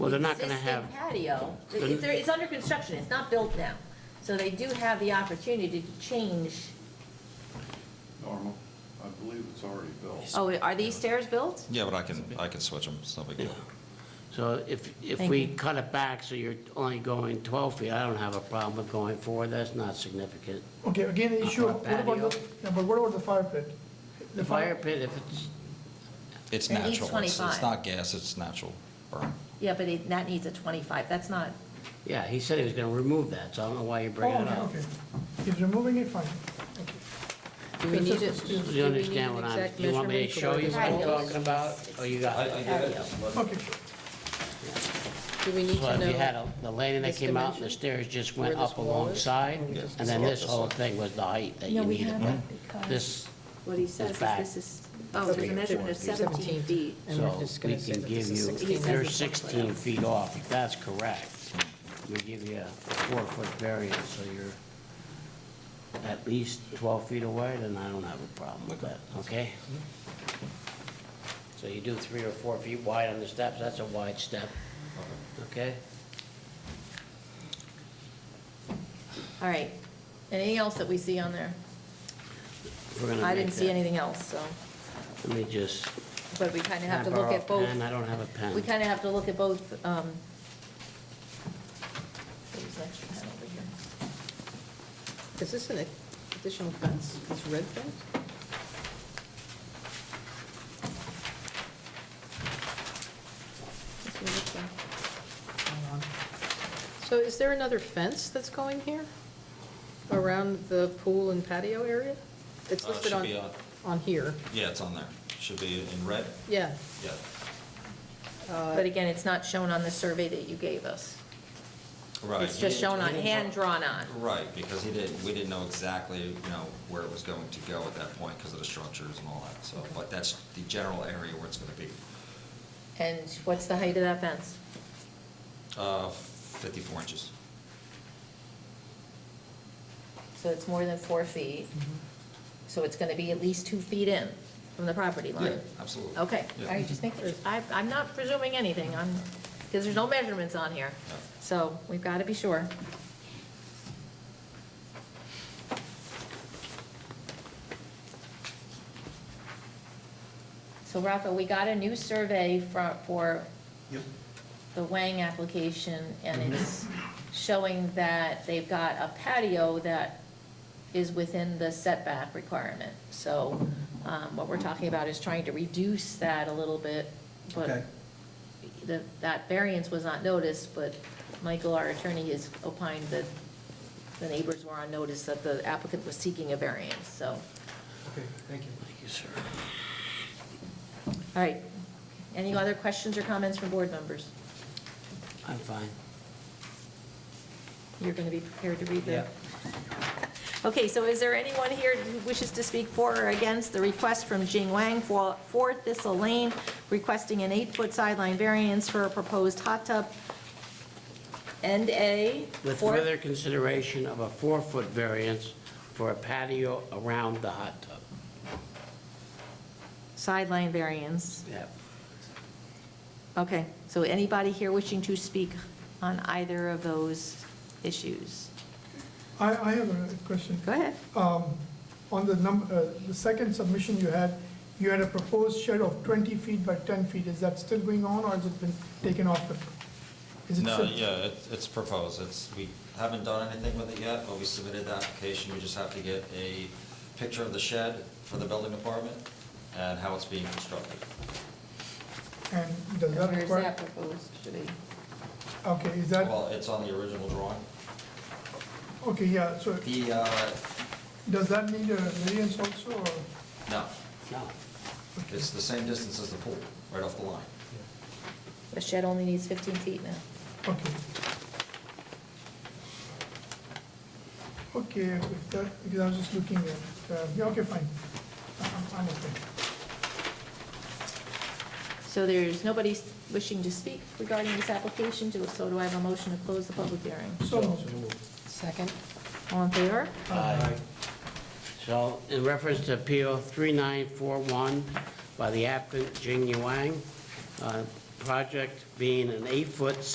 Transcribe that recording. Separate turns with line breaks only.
Well, they're
the
not gonna
existing
have,
Patio, if they're- it's under construction, it's not built now, so they do have the opportunity to change.
Normal, I believe it's already built.
Oh, are these stairs built?
Yeah, but I can, I can switch them, it's no big deal.
so if, if
Thank
we
you.
cut it back, so you're only going 12 feet, I don't have a problem with going four, that's not significant.
Okay, again, the issue,
Uh,
what about
patio.
the, yeah, but what about the fire pit?
The fire pit, if it's,
It's
At least
natural, it's, it's
25.
not gas, it's natural burn.
Yeah, but it, that needs a twenty-five, that's not,
yeah, he said he was gonna remove that, so I don't know why you
Oh,
bring it up.
okay, he's removing it, fine.
Do we need it?
Do you understand what I'm, you want me to show you what I'm talking about, or you got it?
patio.
Okay,
Do we need
So
to
if you had
know?
a- the landing that
this
came out, and the
dimension?
stairs just
Where
went
this
up
wall is?
alongside,
Yes.
and then this
This
whole
one.
thing was the height that you needed. This,
What he says is
back.
this is, oh, there's a measurement of 17 feet.
And we're
so
just
we
gonna say
can
that
give
this is
you,
16 as
you're
opposed to
16 feet off, if that's correct. We give you a four-foot variance, so you're at least 12 feet away, then I don't have a problem with that, okay? So you do three or four feet wide on the steps, that's a wide step, okay?
All right, anything else that we see on there?
We're gonna
I
make
didn't see
that-
anything else, so,
Let me just.
but we kind of have to
Can I
look
borrow
at
a
both,
pen? I don't have a pen.
we kind of have to look at both, um. there's an extra pen over here.
Is this an additional fence, this red fence?
This one looks like-
So is there another fence that's going here around the pool and patio area? It's
Uh,
listed
should
on,
be on-
on here,
Yeah, it's on there, should be in red,
yeah. Uh,
yeah.
But again, it's not shown on the survey that you gave us.
Right.
It's just
he didn't-
shown on,
he didn't-
hand drawn on.
Right, because he didn't, we didn't know exactly, you know, where it was going to go at that point because of the structures and all that, so, but that's the general area where it's gonna be.
And what's the height of that fence?
Uh, fifty-four inches.
So it's more than four feet.
Mm-hmm.
So it's gonna be at least two feet in from the property
Yeah,
line?
absolutely.
Okay,
Yeah.
all right, just make, I, I'm not presuming anything, I'm, because there's no measurements on here.
No.
So we've gotta be sure. So Rafa, we got a new survey for, for
Yep.
the Wang application, and it's showing that they've got a patio that is within the setback requirement. So um, what we're talking about is trying to reduce that a little bit, but
Okay.
the- that variance was not noticed, but Michael, our attorney, has opined that the neighbors were on notice that the applicant was seeking a variance, so. All
Okay, thank you.
Thank you, sir.
right, any other questions or comments from board members?
I'm fine.
You're going to be prepared to read the
Yeah.
Okay, so is there anyone here who wishes to speak for or against the request from Jing Wang for for Thistle Lane requesting an eight-foot sideline variance for a proposed hot tub and a
With
four-
further consideration of a four-foot variance for a patio around the hot tub.
sideline variance?
Yep.
Okay, so anybody here wishing to speak on either of those issues?
I, I have a question.
Go ahead.
Um, on the num, uh, the second submission you had, you had a proposed shed of twenty feet by ten feet, is that still going on, or has it been taken off the? is it
No,
still-
yeah, it's, it's proposed, it's, we haven't done anything with it yet, but we submitted the application, we just have to get a picture of the shed for the building department and how it's being constructed.
And does that
Where is
require?
that proposed to be?
Okay, is that,
Well, it's on the original drawing.
okay, yeah, so
The, uh,
does that need a variance also, or?
no,
No.
it's the same distance as the pool, right off the line.
The shed only needs 15 feet now.
Okay. Okay, if that, because I was just looking at, uh, yeah, okay, fine. I'm, I'm okay.
So there's nobody wishing to speak regarding this application, Do- so do I have a motion to close the public hearing?
So,
Second.
All in favor?
Aye. So in reference to appeal 3941 by the applicant Jing Wang, uh, project being an eight-foot